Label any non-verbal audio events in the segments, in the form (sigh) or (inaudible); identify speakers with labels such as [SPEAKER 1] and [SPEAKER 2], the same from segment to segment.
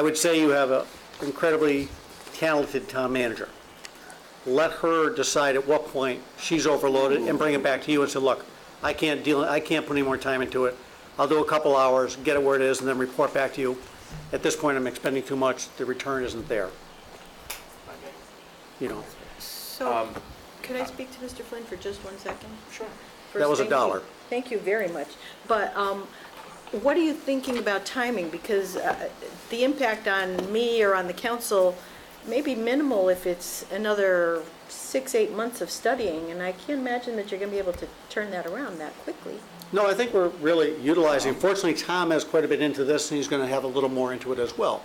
[SPEAKER 1] I would say you have an incredibly talented town manager. Let her decide at what point she's overloaded and bring it back to you and say, look, I can't deal, I can't put any more time into it. I'll do a couple hours, get it where it is, and then report back to you. At this point, I'm expending too much, the return isn't there. You know,
[SPEAKER 2] So,
[SPEAKER 1] Um,
[SPEAKER 2] could I speak to Mr. Flynn for just one second? Sure.
[SPEAKER 1] uh, That was a dollar.
[SPEAKER 2] Thank you very much. But um, what are you thinking about timing? Because uh, the impact on me or on the council may be minimal if it's another six, eight months of studying, and I can't imagine that you're going to be able to turn that around that quickly.
[SPEAKER 1] no, I think we're really utilizing, fortunately, Tom has quite a bit into this, and he's gonna have a little more into it as well.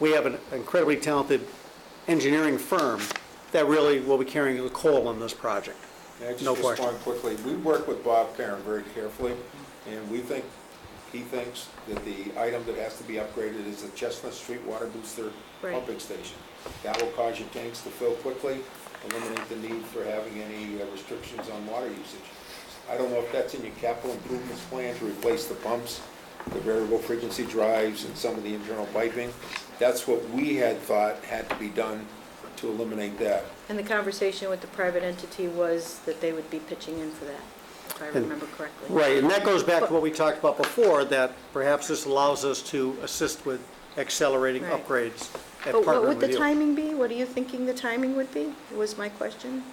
[SPEAKER 1] We have an incredibly talented engineering firm that really will be carrying the coal on this project.
[SPEAKER 3] May I just
[SPEAKER 1] No question.
[SPEAKER 3] respond quickly? We work with Bob Karen very carefully, and we think, he thinks that the item that has to be upgraded is the Chestnut Street Water Booster
[SPEAKER 2] Right.
[SPEAKER 3] pumping station. That will cause your tanks to fill quickly, eliminate the need for having any uh, restrictions on water usage. I don't know if that's in your capital improvements plan to replace the pumps, the variable frequency drives, and some of the internal piping. That's what we had thought had to be done to eliminate that.
[SPEAKER 2] And the conversation with the private entity was that they would be pitching in for that, if I remember correctly.
[SPEAKER 1] Right, and that goes back to what we talked about before, that perhaps this allows us to assist with accelerating
[SPEAKER 2] Right.
[SPEAKER 1] upgrades and
[SPEAKER 2] But what
[SPEAKER 1] partnering
[SPEAKER 2] would the
[SPEAKER 1] with you.
[SPEAKER 2] timing be? What are you thinking the timing would be, was my question?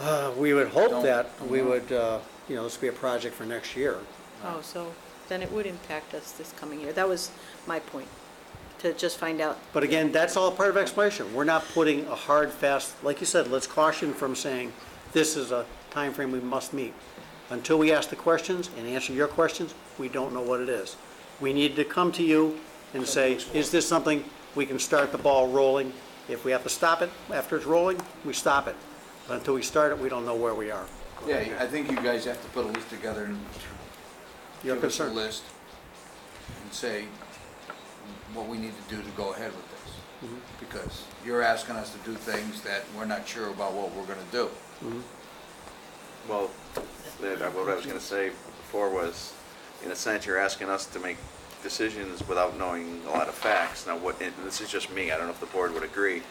[SPEAKER 1] Uh, We would hope that we would, uh, you know, this would be a project for next year.
[SPEAKER 2] Oh, so then it would impact us this coming year. That was my point, to just find out.
[SPEAKER 1] But again, that's all part of exploration. We're not putting a hard, fast, like you said, let's caution from saying, this is a time frame we must meet. Until we ask the questions and answer your questions, we don't know what it is. We need to come to you and say, is this something we can start the ball rolling? If we have to stop it after it's rolling, we stop it. But until we start it, we don't know where we are.
[SPEAKER 4] Yeah, I think you guys have to put a list together and
[SPEAKER 1] Your
[SPEAKER 4] give us a
[SPEAKER 1] concern.
[SPEAKER 4] list and say what we need to do to go ahead with this. Because you're asking us to do things that we're not sure about what we're gonna do.
[SPEAKER 5] Well, that- uh, what I was going to say before was, in a sense, you're asking us to make decisions without knowing a lot of facts. Now, what, and this is just me, I don't know if the board would agree.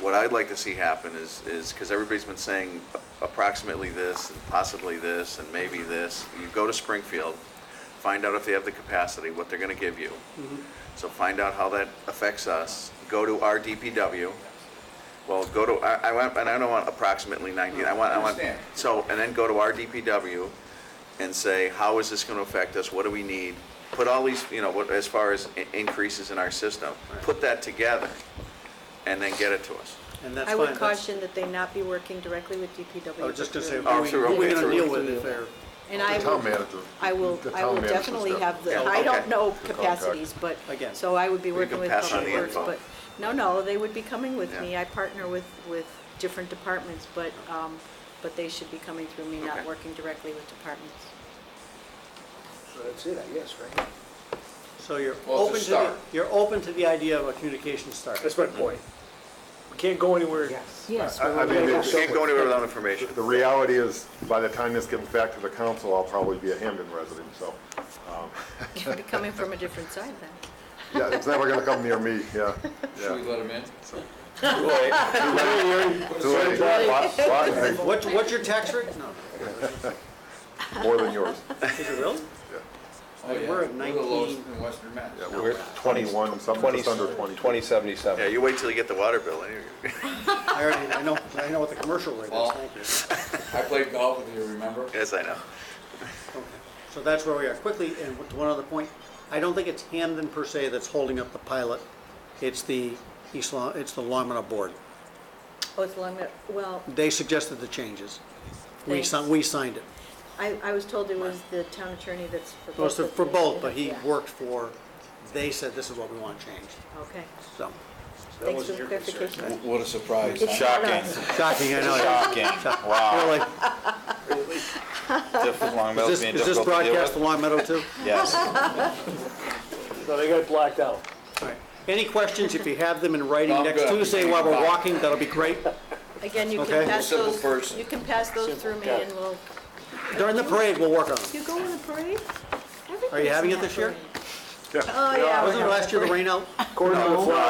[SPEAKER 5] What I'd like to see happen is, is, because everybody's been saying approximately this, and possibly this, and maybe this. You go to Springfield, find out if they have the capacity, what they're going to give you. So find out how that affects us. Go to our DPW. Well, go to, I, I want, and I don't want approximately 90, I want, I want,
[SPEAKER 4] Understand.
[SPEAKER 5] so, and then go to our DPW and say, how is this gonna affect us? What do we need? Put all these, you know, what, as far as i- increases in our system, put that together and then get it to us.
[SPEAKER 1] And that's
[SPEAKER 2] I
[SPEAKER 1] fine.
[SPEAKER 2] would
[SPEAKER 1] That's-
[SPEAKER 2] caution that they not be working directly with DPW.
[SPEAKER 1] I was just gonna say,
[SPEAKER 5] Oh,
[SPEAKER 1] who
[SPEAKER 5] sure,
[SPEAKER 1] are we
[SPEAKER 5] okay,
[SPEAKER 1] gonna
[SPEAKER 5] sure.
[SPEAKER 1] deal with if they're,
[SPEAKER 2] And I
[SPEAKER 6] The town
[SPEAKER 2] will,
[SPEAKER 6] manager.
[SPEAKER 2] I will,
[SPEAKER 6] The
[SPEAKER 2] I
[SPEAKER 6] town
[SPEAKER 2] will
[SPEAKER 6] manager's
[SPEAKER 2] definitely
[SPEAKER 6] step.
[SPEAKER 2] have the,
[SPEAKER 5] Yeah,
[SPEAKER 2] I don't
[SPEAKER 5] okay.
[SPEAKER 2] know
[SPEAKER 6] The contact.
[SPEAKER 2] capacities, but,
[SPEAKER 1] Again.
[SPEAKER 2] so I would be
[SPEAKER 5] We
[SPEAKER 2] working
[SPEAKER 5] can
[SPEAKER 2] with
[SPEAKER 5] pass on
[SPEAKER 2] Public
[SPEAKER 5] the
[SPEAKER 2] Works,
[SPEAKER 5] info.
[SPEAKER 2] but, no, no, they would be coming with
[SPEAKER 5] Yeah.
[SPEAKER 2] me. I partner with, with different departments, but, um, but they should be coming through me, not
[SPEAKER 5] Okay.
[SPEAKER 2] working directly with departments. (laughs)
[SPEAKER 3] So that's it, I guess, right?
[SPEAKER 1] so you're
[SPEAKER 4] Well,
[SPEAKER 1] open
[SPEAKER 4] it's a
[SPEAKER 1] to, the-
[SPEAKER 4] start.
[SPEAKER 1] you're open to the idea of a communication start.
[SPEAKER 7] That's my point. We can't go anywhere.
[SPEAKER 2] Yes.
[SPEAKER 6] I I mean,
[SPEAKER 5] You Can't go
[SPEAKER 6] it's-
[SPEAKER 5] anywhere without information.
[SPEAKER 6] the reality is, by the time this gets back to the council, I'll probably be a Hamden resident, so,
[SPEAKER 2] Be coming from a different side then.
[SPEAKER 6] yeah, it's never gonna come near me, yeah,
[SPEAKER 4] Should we
[SPEAKER 6] yeah.
[SPEAKER 4] let them in?
[SPEAKER 6] Too late. Lot- lot-
[SPEAKER 1] What's, what's your tax rate? No,
[SPEAKER 6] More than yours.
[SPEAKER 1] is it really?
[SPEAKER 4] Oh, yeah.
[SPEAKER 1] We're at
[SPEAKER 4] the lowest
[SPEAKER 1] 19.
[SPEAKER 4] in Western Mass.
[SPEAKER 6] Yeah, we're twenty-one, some, just under twenty.
[SPEAKER 5] Yeah, you wait till you get the water bill, and you're-
[SPEAKER 1] I already, I know, I know what the commercial rate is,
[SPEAKER 4] Well-
[SPEAKER 1] thank you.
[SPEAKER 4] I played golf with you, remember?
[SPEAKER 5] (laughs) yes, I know.
[SPEAKER 1] So that's where we are. Quickly, and to one other point, I don't think it's Hamden per se that's holding up the pilot. It's the East Long, it's the Longmont Board.
[SPEAKER 2] Oh, it's long, well,
[SPEAKER 1] They suggested the changes. We
[SPEAKER 2] Thanks.
[SPEAKER 1] signed, we signed it.
[SPEAKER 2] I, I was told it was the town attorney that's for both.
[SPEAKER 1] It was
[SPEAKER 2] of
[SPEAKER 1] for
[SPEAKER 2] the-
[SPEAKER 1] both, but he
[SPEAKER 2] yeah.
[SPEAKER 1] worked for, they said this is what we want changed,
[SPEAKER 2] Okay,
[SPEAKER 1] so.
[SPEAKER 2] thanks for the clarification.
[SPEAKER 4] What a surprise.
[SPEAKER 2] It's not us.
[SPEAKER 1] Shocking, I know. Shocking, wow. Really. Is this, is this broadcast to Long Meadow too?
[SPEAKER 7] No, they got it blacked out.
[SPEAKER 1] All right. Any questions, if you have them in writing
[SPEAKER 4] No, I'm
[SPEAKER 1] next
[SPEAKER 4] good.
[SPEAKER 1] Tuesday while we're walking, that'll be great.
[SPEAKER 2] Again, you
[SPEAKER 1] Okay.
[SPEAKER 2] can pass
[SPEAKER 4] Simple
[SPEAKER 2] those,
[SPEAKER 4] person.
[SPEAKER 2] you can pass those through me and we'll,
[SPEAKER 1] During the parade, we'll work on them.
[SPEAKER 2] you go in the parade?
[SPEAKER 1] Are you having
[SPEAKER 2] Everybody's in
[SPEAKER 1] it
[SPEAKER 2] that
[SPEAKER 1] this year?
[SPEAKER 2] parade.
[SPEAKER 8] Oh, yeah.
[SPEAKER 6] Wasn't it last year the rain out?
[SPEAKER 1] According to the
[SPEAKER 6] No.
[SPEAKER 1] flag.